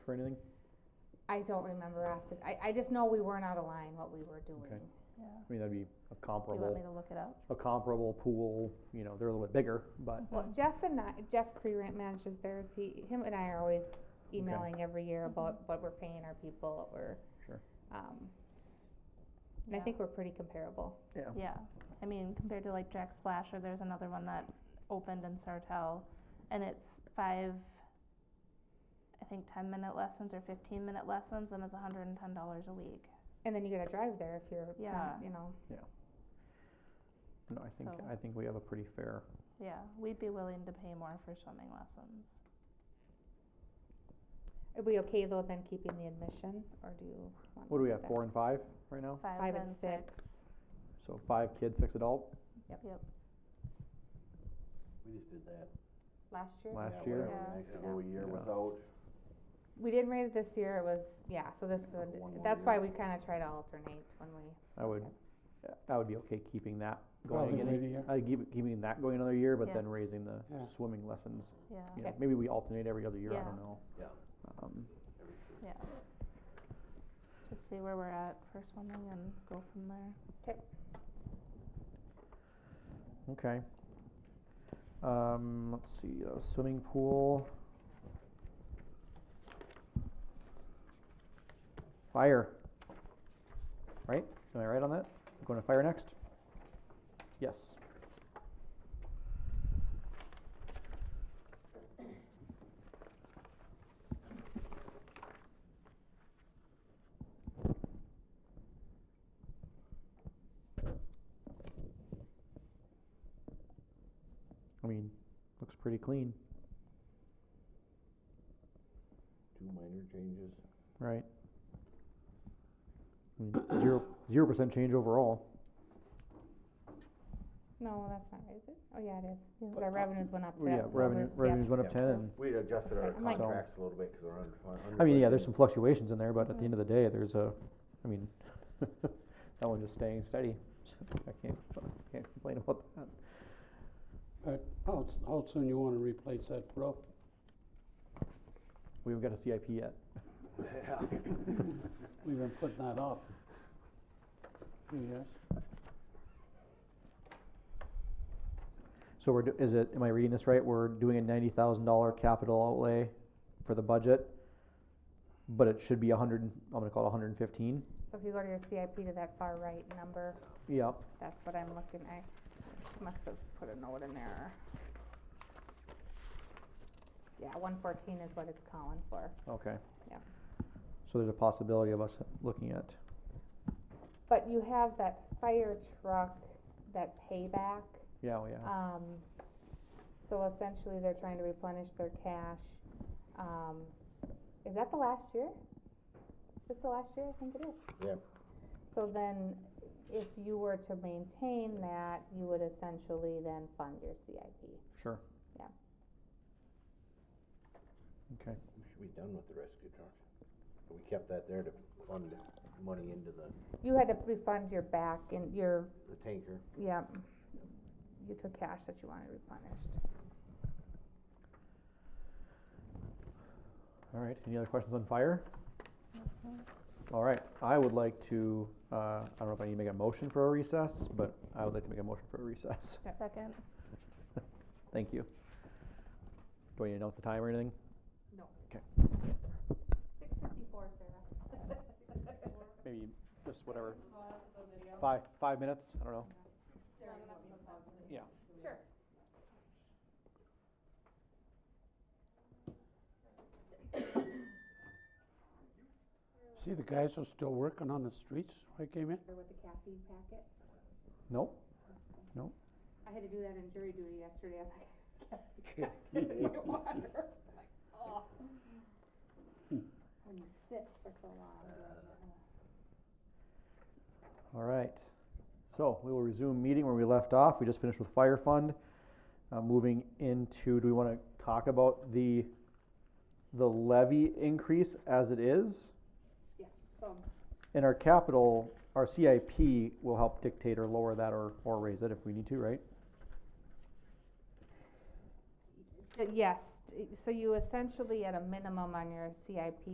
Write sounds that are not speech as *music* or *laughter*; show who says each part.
Speaker 1: or anything?
Speaker 2: I don't remember after, I, I just know we weren't out of line what we were doing.
Speaker 3: Yeah,
Speaker 1: I mean, that'd be a
Speaker 3: do you want me
Speaker 1: comparable,
Speaker 3: to look it up?
Speaker 1: a comparable pool, you know, they're a little bit bigger, but,
Speaker 2: Well, Jeff and I, Jeff Creerant manages theirs, he, him and I are always emailing every year about what we're paying our people, what we're.
Speaker 1: Sure.
Speaker 2: Um, and I
Speaker 3: Yeah.
Speaker 2: think we're pretty comparable.
Speaker 1: yeah.
Speaker 3: Yeah, I mean, compared to like Jack Splash, or there's another one that opened in Sartell, and it's five, I think ten minute lessons or fifteen minute lessons, and it's hundred and ten dollars a week.
Speaker 2: And then you gotta drive there if you're not,
Speaker 3: Yeah.
Speaker 2: you know,
Speaker 1: No, I think,
Speaker 3: So-
Speaker 1: I think we have a pretty fair,
Speaker 3: Yeah, we'd be willing to pay more for swimming lessons.
Speaker 2: are we okay though then keeping the admission, or do you? want
Speaker 1: what do we
Speaker 2: to
Speaker 1: have,
Speaker 2: go
Speaker 1: four
Speaker 2: back?
Speaker 1: and five right now?
Speaker 2: Five and six,
Speaker 1: So five kids, six adult,
Speaker 4: We just did that.
Speaker 2: last year?
Speaker 1: last
Speaker 4: Yeah,
Speaker 1: year,
Speaker 4: whatever, Nice to
Speaker 2: Yeah.
Speaker 4: go a year
Speaker 1: Yeah.
Speaker 4: without.
Speaker 2: We didn't raise this year, it was, yeah, so this
Speaker 4: For
Speaker 2: would,
Speaker 4: one more
Speaker 2: that's
Speaker 4: year.
Speaker 2: why we kinda try to alternate when we,
Speaker 1: I would, I would be okay keeping that going
Speaker 5: Probably
Speaker 1: again.
Speaker 5: wait a year.
Speaker 1: I'd keep, keeping that going another year, but
Speaker 3: Yeah.
Speaker 1: then raising the
Speaker 5: Yeah.
Speaker 1: swimming lessons, you
Speaker 3: Yeah,
Speaker 1: know,
Speaker 2: Okay.
Speaker 1: maybe we alternate every other year, I
Speaker 3: Yeah.
Speaker 1: don't know.
Speaker 4: Yeah.
Speaker 1: Um,
Speaker 4: every three.
Speaker 3: yeah. Just see where we're at for swimming and go from there.
Speaker 1: Okay. Um, let's see, uh, swimming pool. Fire. Right? Am I right on that? Going to fire next? Yes. I mean, looks pretty clean,
Speaker 4: Two minor changes.
Speaker 1: right? I mean, zero, zero percent change overall.
Speaker 2: no, that's not right, is it? Oh, yeah, it is, 'cause
Speaker 1: But,
Speaker 2: our
Speaker 1: uh,
Speaker 2: revenues went up to.
Speaker 1: Yeah, revenue,
Speaker 2: over- yeah.
Speaker 1: revenues went up
Speaker 4: Yeah.
Speaker 1: ten and,
Speaker 4: We adjusted
Speaker 2: That's
Speaker 4: our
Speaker 2: right. I'm like- So-
Speaker 4: contracts a little bit because we're under.
Speaker 1: I mean, yeah, there's
Speaker 4: budgeted.
Speaker 1: some fluctuations in there, but at the end of the day, there's a, I mean, *laughs* that one just staying steady. So I can't, I can't complain about that.
Speaker 5: But how, s- how soon you wanna replace that roof?
Speaker 1: We haven't got a CIP yet.
Speaker 4: *laughs*
Speaker 5: We've been putting that *laughs* up. Few years.
Speaker 1: So we're, do- is it, am I reading this right? We're doing a ninety thousand dollar capital outlay for the budget, but it should be a hundred, and- I'm gonna call it a hundred and fifteen.
Speaker 2: So if you go to your CIP to that far right number,
Speaker 1: Yep,
Speaker 2: that's what I'm looking, I must have put a note in there. Yeah, one fourteen is what it's calling for.
Speaker 1: okay.
Speaker 2: Yeah.
Speaker 1: So there's a possibility of us looking at,
Speaker 2: But you have that fire truck, that payback,
Speaker 1: yeah, oh, yeah,
Speaker 2: um, so essentially they're trying to replenish their cash. Um, is that the last year? Is the last year? I think it is.
Speaker 4: Yep.
Speaker 2: So then, if you were to maintain that, you would essentially then fund your CIP.
Speaker 1: sure.
Speaker 2: Yeah.
Speaker 1: Okay,
Speaker 4: We should be done with the rescue truck. But we kept that there to fund money into the,
Speaker 2: You had to refund your back and your,
Speaker 4: the tanker.
Speaker 2: yeah, you took cash that you wanted replenished.
Speaker 1: all right. Any other questions on fire?
Speaker 3: Mhm.
Speaker 1: All right, I would like to, uh, I don't know if I need to make a motion for a recess, but I would like to make a motion for a recess. *laughs*
Speaker 2: Yep.
Speaker 3: Second,
Speaker 1: Thank you. Do I need to announce the time or anything?
Speaker 2: No.
Speaker 1: Okay.
Speaker 2: Six fifty-four, Sarah.
Speaker 1: Maybe just whatever. Five, five minutes, I don't know. Yeah.
Speaker 2: Sure.
Speaker 5: See, the guys are still working on the streets when I came in.
Speaker 2: With the caffeine packet,
Speaker 1: Nope,
Speaker 2: I had to do that in jury duty yesterday, I'm like, *laughs* caffeine packet in my water, I'm like, oh. When you sit for so long, you're like, "Ugh."
Speaker 1: all right. So we will resume meeting where we left off. We just finished with fire fund. Uh, moving into, do we want to talk about the, the levy increase as it is?
Speaker 2: so
Speaker 1: And our capital, our CIP will help dictate or lower that or, or raise it if we need to, right?
Speaker 2: Uh, Yes, t- so you essentially at a minimum on your CIP